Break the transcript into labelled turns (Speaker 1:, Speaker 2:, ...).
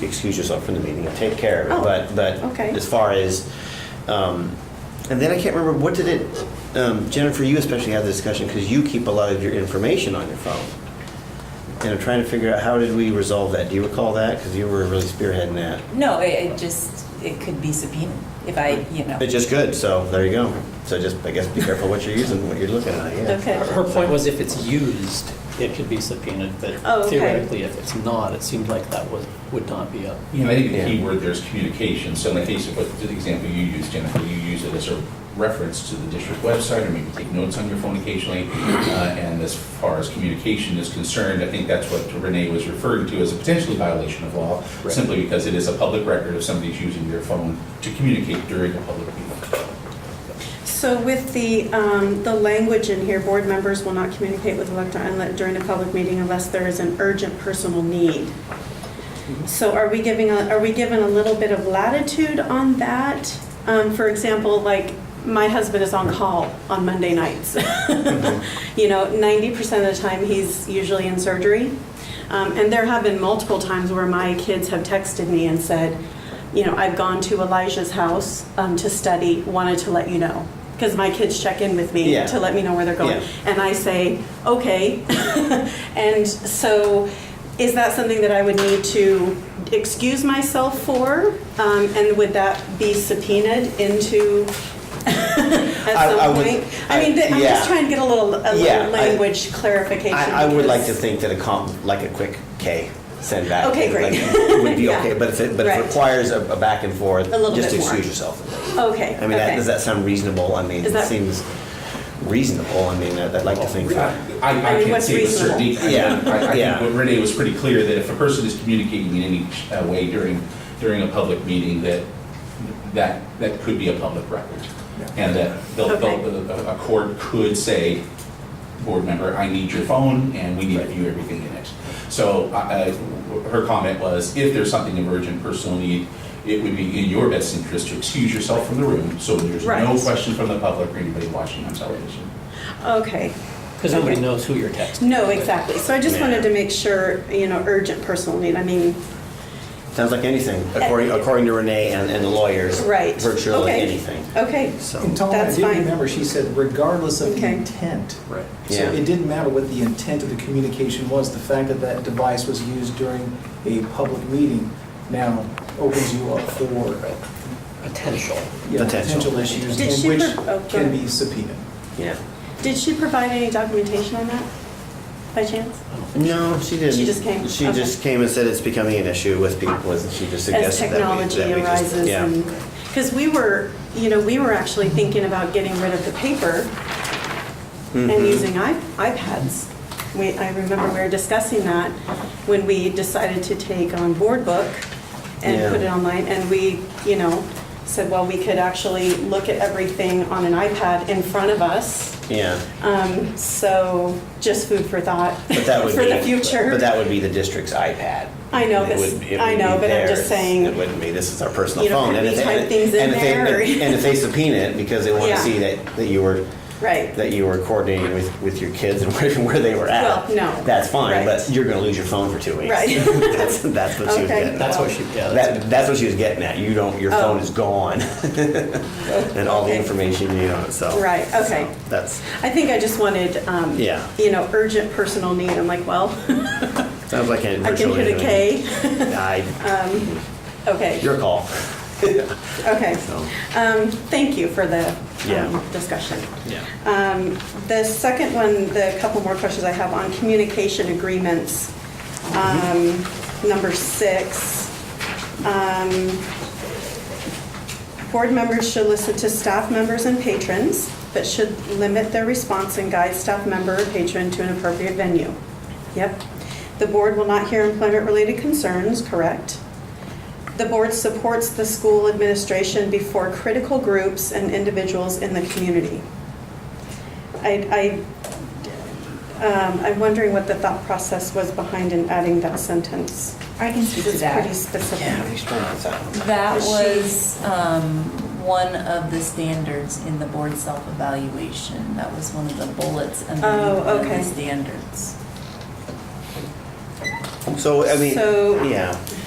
Speaker 1: excuse yourself from the meeting and take care of it.
Speaker 2: Oh,
Speaker 1: But, but
Speaker 2: okay.
Speaker 1: as far as, um, and then I can't remember, what did it, um, Jennifer, you especially had the discussion because you keep a lot of your information on your phone. And I'm trying to figure out, how did we resolve that? Do you recall that? Because you were really spearheading that.
Speaker 3: No, it, it just, it could be subpoenaed if I, you know.
Speaker 1: It's just good, so there you go. So just, I guess, be careful what you're using, what you're looking at, yeah.
Speaker 2: Okay.
Speaker 4: Her her point was if it's used, it could be subpoenaed,
Speaker 2: Oh,
Speaker 4: but
Speaker 2: okay.
Speaker 4: theoretically, if it's not, it seemed like that was, would not be up.
Speaker 5: You know, I think the key
Speaker 1: Yeah.
Speaker 5: word there is communication. So in the case of what, the example you used, Jennifer, you use it as a reference to the district website, or maybe take notes on your phone occasionally. Uh, And as far as communication is concerned, I think that's what Renee was referring to as a potentially violation of law,
Speaker 4: Right.
Speaker 5: simply because it is a public record if somebody's using their phone to communicate during a public meeting.
Speaker 2: So with the, um, the language in here, board members will not communicate with elected unlet during a public meeting unless there is an urgent personal need. So are we giving, a- are we given a little bit of latitude on that? Um, For example, like, my husband is on call on Monday nights. You know, 90% of the time, he's usually in surgery. Um, And there have been multiple times where my kids have texted me and said, you know, I've gone to Elijah's house um, to study, wanted to let you know. Because my kids check in with me
Speaker 1: Yeah.
Speaker 2: to let me know where they're going.
Speaker 1: Yeah.
Speaker 2: And I say, okay. and so, is that something that I would need to excuse myself for? Um, and would that be subpoenaed into at
Speaker 1: I-
Speaker 2: some
Speaker 1: I would-
Speaker 2: point? I mean, th- I'm
Speaker 1: yeah.
Speaker 2: just trying to get a little, a
Speaker 1: Yeah, I-
Speaker 2: little language clarification.
Speaker 1: I, I would like to
Speaker 2: because-
Speaker 1: think that a comp, like a quick K send back.
Speaker 2: Okay, great.
Speaker 1: like, Would be
Speaker 2: Yeah.
Speaker 1: okay, but if it, but if
Speaker 2: Right.
Speaker 1: it requires a a back and forth,
Speaker 2: A little
Speaker 1: just
Speaker 2: bit more.
Speaker 1: excuse yourself.
Speaker 2: Okay.
Speaker 1: I mean, that,
Speaker 2: okay.
Speaker 1: does that sound reasonable? I mean,
Speaker 2: Is
Speaker 1: it
Speaker 2: that-
Speaker 1: seems reasonable. I mean, I'd I'd like to think
Speaker 5: I,
Speaker 1: that.
Speaker 5: I
Speaker 2: I mean,
Speaker 5: can't
Speaker 2: what's
Speaker 5: say with certainty. I-
Speaker 2: reasonable?
Speaker 5: I- I
Speaker 1: Yeah.
Speaker 5: think what Renee was pretty clear, that if a person is communicating in any uh, way during, during a public meeting, that, that, that could be a public record. And that they'll- they'll- a a court could say, board member, I need your phone, and we need to view everything in it. So I- I- her comment was, if there's something of urgent personal need, it would be in your best interest to excuse yourself from the room, so there's no
Speaker 2: Right.
Speaker 5: question from the public or anybody watching on television.
Speaker 2: Okay.
Speaker 4: Because nobody knows who you're texting.
Speaker 2: No, exactly. So I just
Speaker 1: Yeah.
Speaker 2: wanted to make sure, you know, urgent personal need. I mean,
Speaker 1: Sounds like anything, according, according to Renee and, and the lawyers.
Speaker 2: right.
Speaker 1: Virtually
Speaker 2: Okay.
Speaker 1: anything.
Speaker 2: Okay.
Speaker 1: So,
Speaker 6: And Tom, I
Speaker 2: That's
Speaker 6: do
Speaker 2: fine.
Speaker 6: remember, she said regardless of the
Speaker 2: Okay.
Speaker 6: intent.
Speaker 4: Right.
Speaker 6: So
Speaker 1: Yeah.
Speaker 6: it didn't matter what the intent of the communication was, the fact that that device was used during a public meeting now opens you up for
Speaker 4: Potential.
Speaker 6: yeah,
Speaker 1: Potential.
Speaker 6: potential issues,
Speaker 2: Did she
Speaker 6: and which
Speaker 2: pro- oh, go
Speaker 6: can
Speaker 2: ahead.
Speaker 6: be subpoenaed.
Speaker 1: yeah.
Speaker 2: Did she provide any documentation on that by chance?
Speaker 1: No, she didn't.
Speaker 2: She just came?
Speaker 1: She
Speaker 2: Okay.
Speaker 1: just came and said it's becoming an issue with people, and she just
Speaker 2: As
Speaker 1: suggested that we,
Speaker 2: technology
Speaker 1: that we just-
Speaker 2: arises
Speaker 1: yeah. Mm-hmm.
Speaker 2: and, because we were, you know, we were actually thinking about getting rid of the paper and
Speaker 1: Mhm.
Speaker 2: using i- iPads. We, I remember we were discussing that when we decided to take on Board Book
Speaker 1: Yeah.
Speaker 2: and put it online, and we, you know, said, well, we could actually look at everything on an iPad in front of us.
Speaker 1: Yeah.
Speaker 2: Um, So just food for thought
Speaker 1: But that would
Speaker 2: for
Speaker 1: be,
Speaker 2: the future.
Speaker 1: But that would be the district's iPad.
Speaker 2: I know,
Speaker 1: It
Speaker 2: but-
Speaker 1: would- it
Speaker 2: I
Speaker 1: would be
Speaker 2: know, but I'm
Speaker 1: theirs.
Speaker 2: just saying,
Speaker 1: It wouldn't be, this is our personal
Speaker 2: you know,
Speaker 1: phone.
Speaker 2: could
Speaker 1: And
Speaker 2: we
Speaker 1: if they-
Speaker 2: type
Speaker 1: and-
Speaker 2: things in
Speaker 1: and if they-
Speaker 2: there or-
Speaker 1: And if they subpoena it because they want to
Speaker 2: Yeah.
Speaker 1: see that, that you were,
Speaker 2: Right.
Speaker 1: that you were coordinating with, with your kids and where, where they were at.
Speaker 2: Well, no.
Speaker 1: That's fine, but
Speaker 2: Right.
Speaker 1: you're gonna lose your phone for two weeks.
Speaker 2: Right.
Speaker 1: That's, that's what she was
Speaker 2: Okay.
Speaker 1: getting
Speaker 4: That's
Speaker 1: at.
Speaker 4: what she, yeah. that's-
Speaker 1: That, that's what she was getting at. You don't, your phone
Speaker 2: Oh.
Speaker 1: is gone. And all the
Speaker 2: Okay.
Speaker 1: information you need on it, so.
Speaker 2: Right, okay.
Speaker 1: so That's,
Speaker 2: I think I just wanted, um,
Speaker 1: Yeah.
Speaker 2: you know, urgent personal need. I'm like, well,
Speaker 1: sounds like a
Speaker 2: I can
Speaker 1: virtually
Speaker 2: hit a
Speaker 1: anything.
Speaker 2: K.
Speaker 1: I,
Speaker 2: Okay,
Speaker 1: your call,
Speaker 2: okay.
Speaker 1: so.
Speaker 2: Um, Thank you for the
Speaker 1: Yeah.
Speaker 2: um, discussion.
Speaker 4: Yeah.
Speaker 2: Um, The second one, the couple more questions I have on communication agreements, um,
Speaker 1: Mm-hmm.
Speaker 2: number six. um, Board members should listen to staff members and patrons, but should limit their response and guide staff member or patron to an appropriate venue. Yep. The board will not hear employment-related concerns, correct? The board supports the school administration before critical groups and individuals in the community. I, I, um, I'm wondering what the thought process was behind in adding that sentence.
Speaker 3: I can speak to
Speaker 2: It's
Speaker 3: that.
Speaker 2: pretty specific.
Speaker 3: That
Speaker 2: She-
Speaker 3: was um, one of the standards in the board self-evaluation. That was one of the bullets underneath
Speaker 2: Oh,
Speaker 3: one of
Speaker 2: okay.
Speaker 3: the standards.
Speaker 1: So, I mean,
Speaker 2: So-
Speaker 1: yeah.